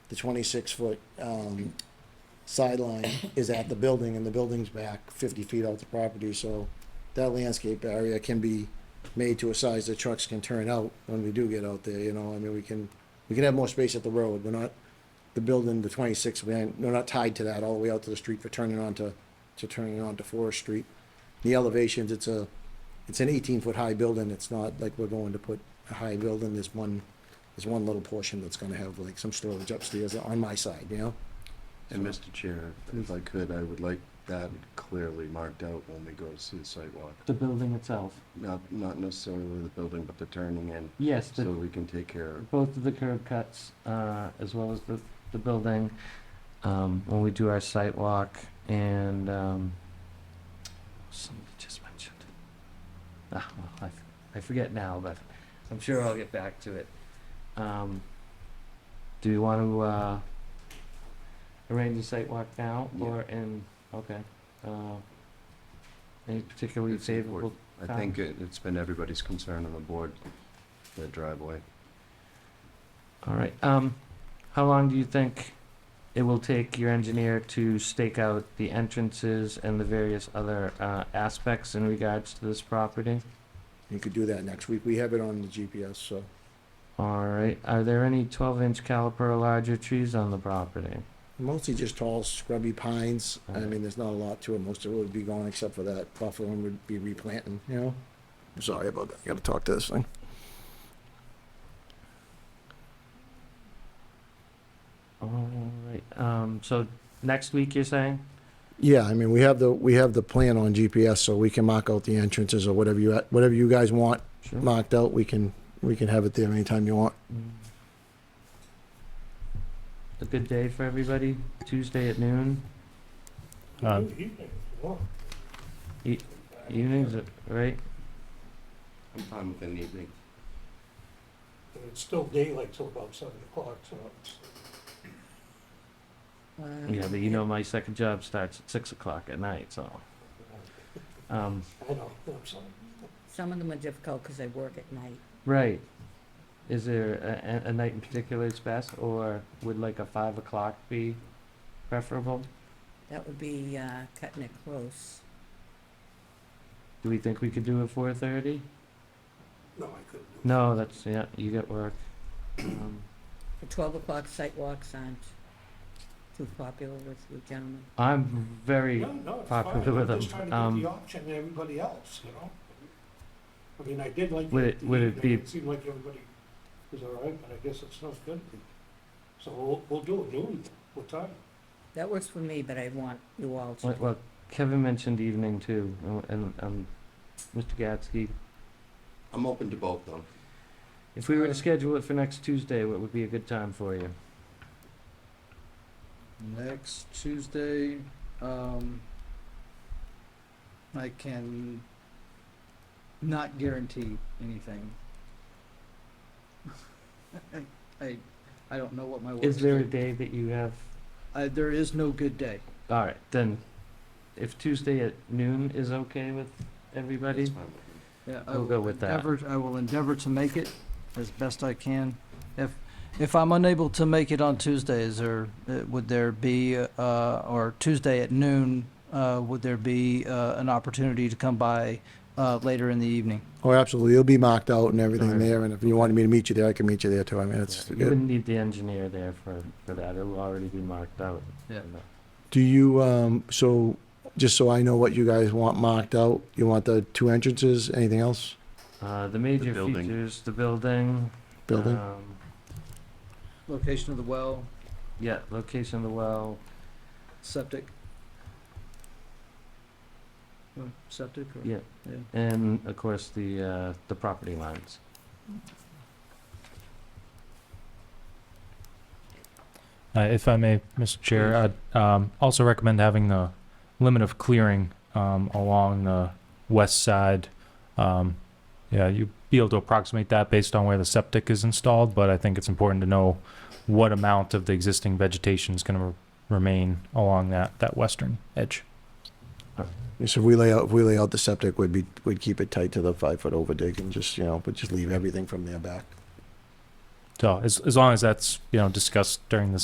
the twenty-six foot, um, sideline is at the building and the building's back fifty feet out the property, so that landscape area can be made to a size that trucks can turn out when we do get out there, you know, I mean, we can, we can have more space at the road, we're not, the building, the twenty-six, we ain't, we're not tied to that all the way out to the street for turning onto, to turning onto Forest Street. The elevations, it's a, it's an eighteen-foot high building, it's not like we're going to put a high building, there's one, there's one little portion that's gonna have like some storage upstairs on my side, you know? And Mr. Chair, if I could, I would like that clearly marked out when we go to see the sidewalk. The building itself. Not, not necessarily the building, but the turning in, Yes, so the, we can take care of. both of the curb cuts, uh, as well as the, the building, um, when we do our site walk and, um, somebody just mentioned. Ah, well, I, I forget now, but I'm sure I'll get back to it. Um, do you want to, uh, arrange a site walk now Yeah. or in, okay, uh, any particularly It's important. favorable I think it- it's been everybody's concern on the board, the driveway. All right, um, how long do you think it will take your engineer to stake out the entrances and the various other, uh, aspects in regards to this property? You could do that next week, we have it on the GPS, so. All right, are there any twelve-inch caliper or larger trees on the property? Mostly just tall scrubby pines, I Alright. mean, there's not a lot to it, most of it would be gone except for that buffalo and would be replanting, you know? I'm sorry about that, I gotta talk to this thing. All right, um, so next week, you're saying? Yeah, I mean, we have the, we have the plan on GPS, so we can mark out the entrances or whatever you, whatever you guys want Sure. marked out, we can, we can have it there anytime you want. Mm. A good day for everybody, Tuesday at noon, Um, E-, evenings, right? I'm fine with an evening. It's still daylight till about seven o'clock, so it's, Yeah, but you know, my second job starts at six o'clock at night, so, um, I know, I'm sorry. Some of them are difficult because they work at night. right. Is there a, a, a night in particular that's best, or would like a five o'clock be preferable? That would be uh, cutting it close. Do we think we could do a four thirty? No, I couldn't. do it. No, that's, yeah, you get work. Um, The 12 o'clock sidewalks aren't too popular with you gentlemen. I'm very, No, no, it's fine. popular with I'm them. just trying to Um, give the option to everybody else, you know? I mean, I did like. Would the- it- the would it evening. be- It seemed like everybody was all right, but I guess it's not good. So we'll, we'll do it noon, what time? That works for me, but I want you all to. well- well, Kevin mentioned evening too, and- and, um, Mr. Gatsky, I'm open to both, though. if we were to Uh, schedule it for next Tuesday, what would be a good time for you? Next Tuesday, um, I can not guarantee anything. I- I, I don't know what my work Is there a day that you have Uh, there is no good day. All right, then, if Tuesday at noon is okay with That's everybody? fine with me. Yeah, I We'll will go with that. endeavor- I will endeavor to make it as best I can. If, if I'm unable to make it on Tuesdays, or uh, would there be, uh, or Tuesday at noon, uh, would there be, uh, an opportunity to come by, uh, later in the evening? Oh, absolutely, it'll be marked out and everything Alright. there, and if you wanted me to meet you there, I can meet you there too, I mean, it's, You wouldn't need the engineer there for, for that, it'll already be marked out. Yeah. do you, um, so, just so I know what you guys want marked out, you want the two entrances, anything else, Uh, the major building. features, the building. building? um, Location of the well, Yeah, location of the well, septic. Uh, Septic or? Yeah. and of course, the, uh, the property lines. Uh, if I may, Mr. Chair, I'd um, also recommend having the limit of clearing um, along the west side. Um, yeah, you be able to approximate that based on where the septic is installed, but I think it's important to know what amount of the existing vegetation is going to remain along that, that western edge. So if we lay out, if we lay out the septic, we'd be, we'd keep it tight to the five-foot overdig and just, you know, but just leave everything from there back. So as, as long as that's you know discussed during the